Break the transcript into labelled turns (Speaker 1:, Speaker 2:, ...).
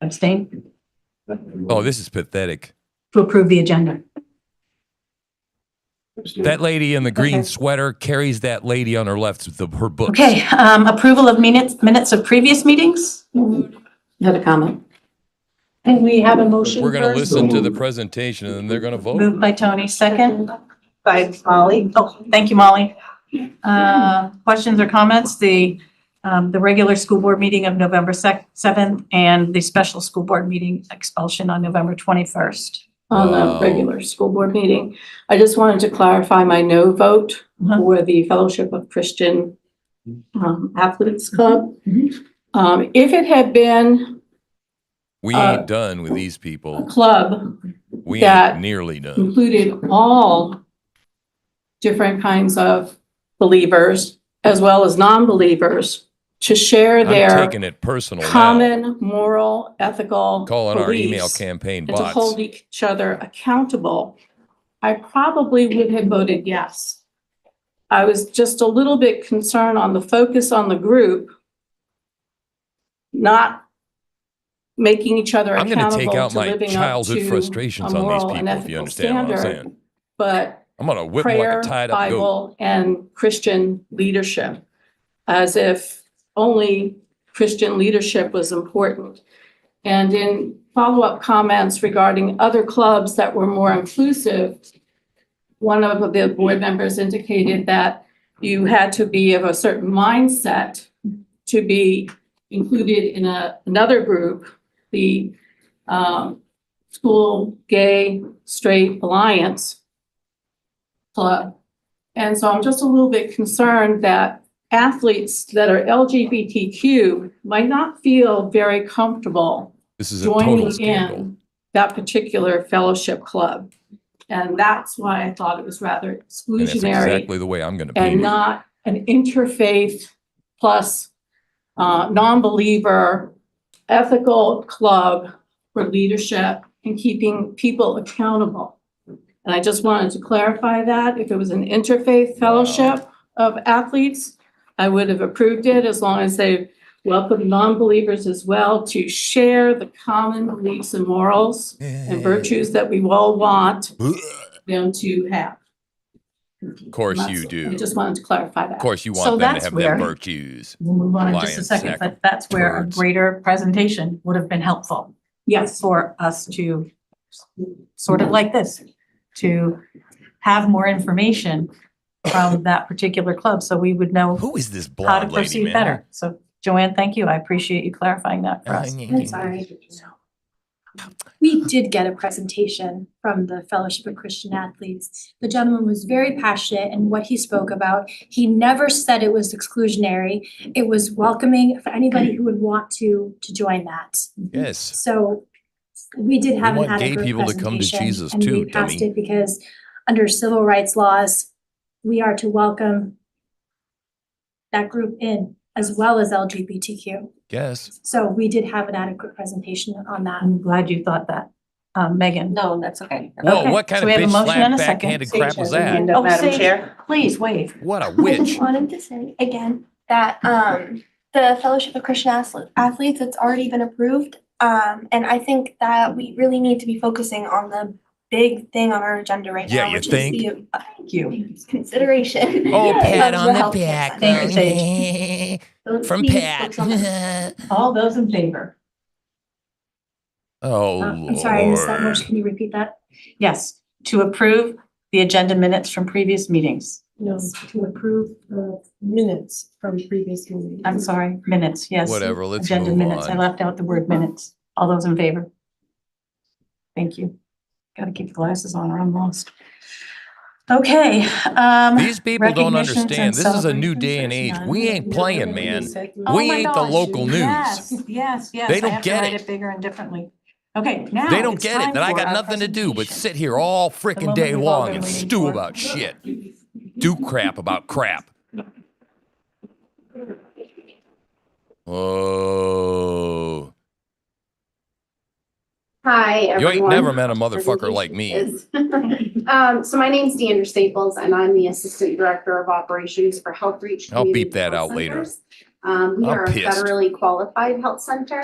Speaker 1: Abstain?
Speaker 2: Oh, this is pathetic.
Speaker 1: To approve the agenda.
Speaker 2: That lady in the green
Speaker 1: Okay.
Speaker 2: sweater carries that lady on her left with the, her books.
Speaker 1: Okay, um, approval of minutes, minutes of previous meetings?
Speaker 3: Had a comment.
Speaker 1: And we have a motion
Speaker 2: We're going to
Speaker 1: first.
Speaker 2: listen to the presentation and then they're going to vote.
Speaker 1: Moved by Tony, second.
Speaker 4: By Molly.
Speaker 1: Oh, thank you, Molly. Uh, questions or comments? The, um, the regular school board meeting of November sec- seventh and the special school board meeting expulsion on November twenty-first.
Speaker 3: On
Speaker 2: Wow.
Speaker 3: the regular school board meeting, I just wanted to clarify my no vote
Speaker 1: Mhm.
Speaker 3: for the Fellowship of Christian um, Athletes Club.
Speaker 1: Mhm.
Speaker 3: Um, if it had been
Speaker 2: We
Speaker 3: Uh,
Speaker 2: ain't done with these
Speaker 3: a
Speaker 2: people.
Speaker 3: club
Speaker 2: We
Speaker 3: that-
Speaker 2: ain't nearly done.
Speaker 3: included all different kinds of believers as well as non-believers to share
Speaker 2: I'm
Speaker 3: their
Speaker 2: taking it personal now.
Speaker 3: common moral, ethical
Speaker 2: Calling our email
Speaker 3: beliefs.
Speaker 2: campaign
Speaker 3: and to hold
Speaker 2: bots.
Speaker 3: each other accountable, I probably would have voted yes. I was just a little bit concerned on the focus on the group, not making each other
Speaker 2: I'm gonna
Speaker 3: accountable
Speaker 2: take out
Speaker 3: to
Speaker 2: my
Speaker 3: living up
Speaker 2: childhood
Speaker 3: to
Speaker 2: frustrations
Speaker 3: a
Speaker 2: on these
Speaker 3: moral and
Speaker 2: people, if you
Speaker 3: ethical
Speaker 2: understand what I'm
Speaker 3: standard,
Speaker 2: saying.
Speaker 3: But
Speaker 2: I'm going to whip 'em like
Speaker 3: prayer,
Speaker 2: a tied up goat.
Speaker 3: Bible, and Christian leadership, as if only Christian leadership was important. And in follow-up comments regarding other clubs that were more inclusive, one of the board members indicated that you had to be of a certain mindset to be included in a, another group, the, um, school gay straight alliance club. And so I'm just a little bit concerned that athletes that are LGBTQ might not feel very comfortable
Speaker 2: This is a total
Speaker 3: joining
Speaker 2: scandal.
Speaker 3: in that particular fellowship club. And that's why I thought it was rather
Speaker 2: And that's
Speaker 3: exclusionary
Speaker 2: exactly the way I'm going to
Speaker 3: and
Speaker 2: be.
Speaker 3: not an interfaith plus uh, non-believer ethical club for leadership and keeping people accountable. And I just wanted to clarify that. If it was an interfaith fellowship of athletes, I would have approved it as long as they welcomed non-believers as well to share the common beliefs and morals and virtues that we all want them to have.
Speaker 2: Of course you
Speaker 3: That's- I
Speaker 2: do.
Speaker 3: just wanted to clarify
Speaker 2: Of
Speaker 3: that.
Speaker 2: course you
Speaker 1: So
Speaker 2: want them to
Speaker 1: that's
Speaker 2: have
Speaker 1: where-
Speaker 2: them virtues.
Speaker 1: We'll move on in just a
Speaker 2: Lions,
Speaker 1: second,
Speaker 2: sack
Speaker 1: but that's where a
Speaker 2: turds.
Speaker 1: greater presentation would have been helpful.
Speaker 3: Yes.
Speaker 1: for us to, sort of like this, to have more information from that particular club, so we would know
Speaker 2: Who is this
Speaker 1: how to
Speaker 2: blonde lady,
Speaker 1: proceed
Speaker 2: man?
Speaker 1: better. So Joanne, thank you. I appreciate you clarifying that for us.
Speaker 2: That's
Speaker 5: We did get a presentation from the Fellowship of Christian Athletes. The gentleman was very passionate in what he spoke about. He never said it was exclusionary. It was welcoming for anybody who would want to to join that.
Speaker 2: Yes.
Speaker 5: So we did
Speaker 2: We
Speaker 5: have an
Speaker 2: want gay
Speaker 5: ad hoc
Speaker 2: people to come to
Speaker 5: presentation,
Speaker 2: Jesus
Speaker 5: and we
Speaker 2: too,
Speaker 5: passed
Speaker 2: dummy.
Speaker 5: it Because under civil rights laws, we are to welcome that group in as well as LGBTQ.
Speaker 2: Yes.
Speaker 5: So we did have an adequate presentation on that.
Speaker 1: I'm glad you thought that, um, Megan.
Speaker 4: No, that's okay.
Speaker 2: Whoa,
Speaker 1: Okay,
Speaker 2: what
Speaker 1: so
Speaker 2: kind of
Speaker 1: we have a
Speaker 2: bitch
Speaker 1: motion
Speaker 2: slap
Speaker 1: and a second.
Speaker 2: backhanded crap was that?
Speaker 4: Hand up,
Speaker 1: Oh,
Speaker 4: Madam
Speaker 1: Sage.
Speaker 4: Chair.
Speaker 1: Please wave.
Speaker 2: What a
Speaker 6: I
Speaker 2: witch.
Speaker 6: just wanted to say again that um the Fellowship of Christian Athle- Athletes, it's already been approved. Um, and I think that we really need to be focusing on the big thing on our agenda right
Speaker 2: Yeah,
Speaker 6: now,
Speaker 2: you
Speaker 6: which
Speaker 2: think?
Speaker 6: is the uh,
Speaker 1: Thank you.
Speaker 6: consideration.
Speaker 2: Oh,
Speaker 6: of
Speaker 2: pat on
Speaker 6: health
Speaker 2: the back.
Speaker 6: center.
Speaker 1: Thank you,
Speaker 6: So
Speaker 2: From
Speaker 6: please
Speaker 2: Pat.
Speaker 6: focus on that.
Speaker 1: All those in favor?
Speaker 2: oh,
Speaker 5: Uh, I'm sorry, I missed that
Speaker 2: Lord.
Speaker 5: motion. Can you repeat that?
Speaker 1: Yes, to approve the agenda minutes from previous meetings.
Speaker 7: No, to approve the minutes from previous meetings.
Speaker 1: I'm sorry, minutes, yes.
Speaker 2: Whatever, let's
Speaker 1: Agenda
Speaker 2: move
Speaker 1: minutes. I
Speaker 2: on.
Speaker 1: left out the word minutes. All those in favor? Thank you. Got to keep the glasses on or I'm lost. Okay, um,
Speaker 2: These people don't
Speaker 1: recognitions and
Speaker 2: understand. This is a new day and age.
Speaker 1: celebrations, none.
Speaker 2: We ain't playing, man.
Speaker 1: Oh
Speaker 2: We
Speaker 1: my
Speaker 2: ain't the
Speaker 1: gosh,
Speaker 2: local news.
Speaker 1: yes, yes, yes.
Speaker 2: They
Speaker 1: I
Speaker 2: don't
Speaker 1: have to
Speaker 2: get
Speaker 1: write
Speaker 2: it.
Speaker 1: Bigger and differently. Okay, now.
Speaker 2: They don't
Speaker 1: it's
Speaker 2: get
Speaker 1: time
Speaker 2: it that I
Speaker 1: for
Speaker 2: got
Speaker 1: our
Speaker 2: nothing to do but
Speaker 1: presentation.
Speaker 2: sit here all frickin'
Speaker 1: moment
Speaker 2: day
Speaker 1: we've all
Speaker 2: long
Speaker 1: been
Speaker 2: and
Speaker 1: waiting
Speaker 2: stew
Speaker 1: for.
Speaker 2: about shit. Do crap about crap. Oh.
Speaker 8: Hi, everyone.
Speaker 2: You ain't never met a motherfucker
Speaker 8: Presentation
Speaker 2: like me.
Speaker 8: is- Um, so my name's Deandra Staples and I'm the Assistant Director of Operations for Health Reach.
Speaker 2: I'll
Speaker 8: Community
Speaker 2: beep that
Speaker 8: Health
Speaker 2: out later.
Speaker 8: Centers. Um, we
Speaker 2: I'm
Speaker 8: are a
Speaker 2: pissed.
Speaker 8: federally qualified health center.